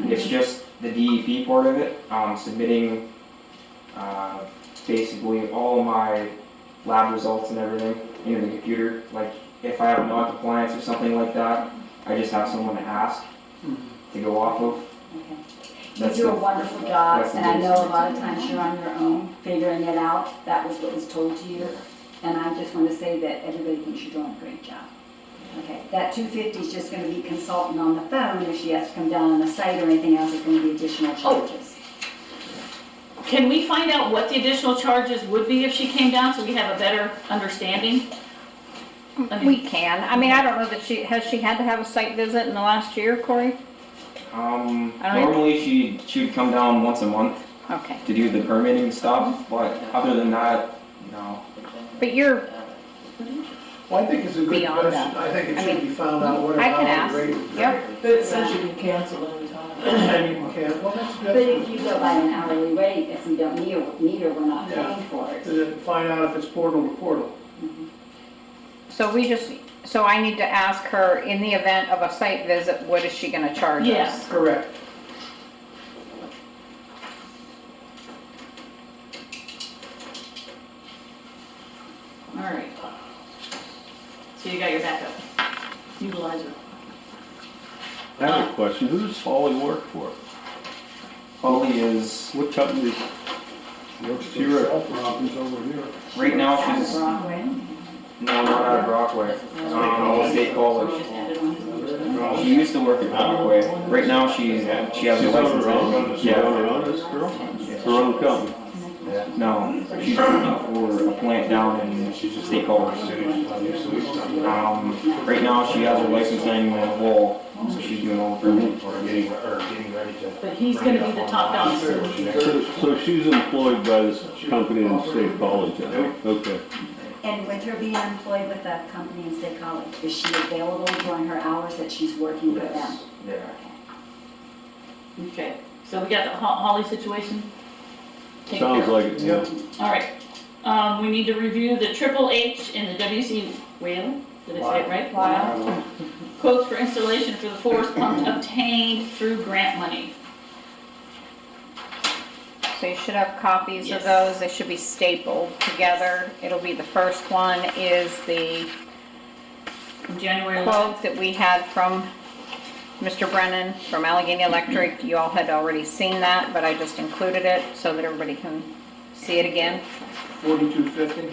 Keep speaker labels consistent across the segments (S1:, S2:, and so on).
S1: It's just the DEP part of it, um, submitting, uh, basically all my lab results and everything into the computer. Like, if I have no compliance or something like that, I just have someone to ask to go off of.
S2: You
S1: That's
S2: do a
S1: the-
S2: wonderful job,
S1: that's the
S2: and I know a
S1: biggest-
S2: lot of times you're on your own figuring it out. That was what was told to you. And I just want to say that everybody thinks you're doing a great job. Okay, that two fifty is just gonna be consultant on the phone. If she has to come down on the site or anything else, it's gonna be additional
S3: Oh,
S2: charges.
S4: Can we find out what the additional charges would be if she came down, so we have a better understanding? I mean,
S5: We can. I mean, I don't know that she, has she had to have a site visit in the last year, Corey?
S1: Um,
S5: I don't-
S1: normally she, she would come down once a month
S5: Okay.
S1: to do the permitting stuff, but other than that, no.
S5: But you're,
S6: Well, I think it's a good
S5: Beyond
S6: question.
S5: that.
S6: I think it
S5: I
S6: should be found out what or
S5: I can
S6: how
S5: ask.
S6: the rate is.
S5: Yep.
S3: But it says you can cancel anytime.
S6: And you can, well, that's,
S2: But if
S6: that's,
S2: you go by an hourly rate, if we don't need her, need her, we're not
S6: Yeah.
S2: paying for it.
S6: to find out if it's portal to portal.
S5: so we just, so I need to ask her, in the event of a site visit, what is she gonna charge us?
S4: Yes.
S6: Correct.
S4: All right. So you got your backup. Utilize it.
S7: I have a question. Who does Folly work for?
S1: Holly is,
S7: What company does
S8: Looks
S7: She wrote-
S8: to South Robbins over here.
S1: right now
S2: Out of
S1: she's, no,
S2: Broadway.
S1: not out of Brockway. Um, State College.
S4: Just add it on his-
S1: She used to work at Brockway. Right now she's, she has a
S7: She's on
S1: license.
S7: her own? She's
S1: Yeah.
S7: on her own, this girl? Her own company?
S1: No, she's looking for a plant down in State College. Um, right now she has her license hanging on the wall, so she's doing all the permitting for it.
S4: But he's gonna be the top dog.
S7: So, so she's employed by this company in State College, I think. Okay.
S2: And with her being employed with a company in State College, is she available during her hours that she's working for them?
S1: Yes, yeah.
S4: Okay, so we got the Ho- Holly situation? taken care of.
S7: Sounds like it.
S6: Yep.
S4: All right, um, we need to review the Triple H and the WC Whalen, did I say it right? Wow. Quotes for installation for the forest pump obtained through grant money.
S5: So you should have copies of
S4: Yes.
S5: those, they should be stapled together. It'll be, the first one is the
S4: From January 11th.
S5: quote that we had from Mr. Brennan from Allegheny Electric. You all had already seen that, but I just included it so that everybody can see it again.
S6: Forty-two fifty?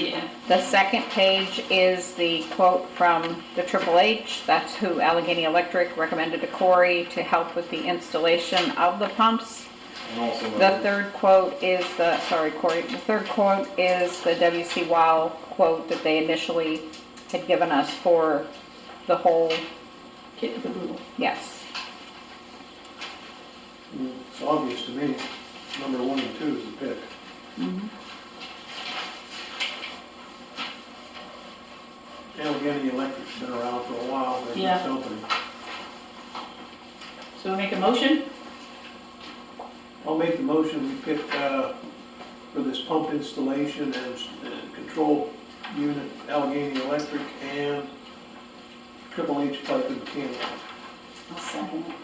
S4: yeah,
S5: The second page is the quote from the Triple H. That's who Allegheny Electric recommended to Corey to help with the installation of the pumps.
S1: And also,
S5: The third quote is the, sorry Corey, the third quote is the WC Wow quote that they initially had given us for the whole,
S4: kick the boodle.
S5: yes.
S6: It's obvious to me, number one and two is the pick. Allegheny Electric's been around for a while, they're
S4: Yeah.
S6: just opening.
S4: So we make a motion,
S6: I'll make the motion, we pick, uh, for this pump installation and, uh control unit Allegheny Electric and Triple H Pipe and Mechanical.
S2: I'll second it.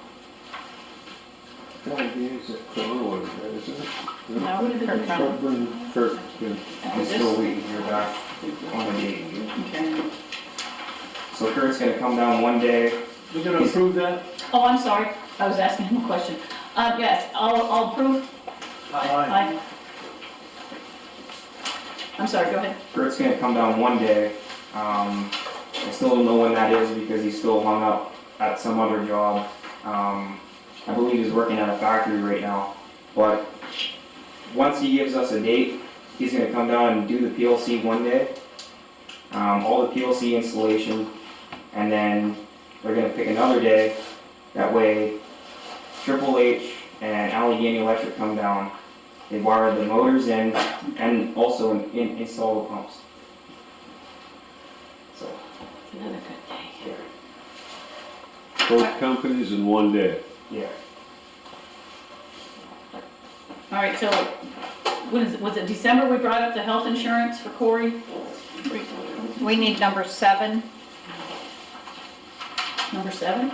S8: That is a Corona, isn't it?
S5: No, Kirk Brown.
S8: Sherburne,
S7: Kirk, yeah.
S1: I'm still waiting to hear back on the date.
S4: okay,
S1: So Kurt's gonna come down one day,
S6: We're gonna approve that?
S4: oh, I'm sorry, I was asking him a question, uh, yes, I'll, I'll approve, aye. I'm sorry, go ahead,
S1: Kurt's gonna come down one day. Um, I still don't know when that is because he's still hung up at some other job. Um, I believe he's working at a factory right now. But once he gives us a date, he's gonna come down and do the PLC one day, um, all the PLC installation, and then we're gonna pick another day. That way, Triple H and Allegheny Electric come down. They wire the motors in, and also in- in- install the pumps. So,
S4: another good day.
S7: Both companies in one day.
S1: yeah,
S4: All right, so, what is, it? was it December we brought up the health insurance for Corey?
S5: We need number seven.
S4: Number seven?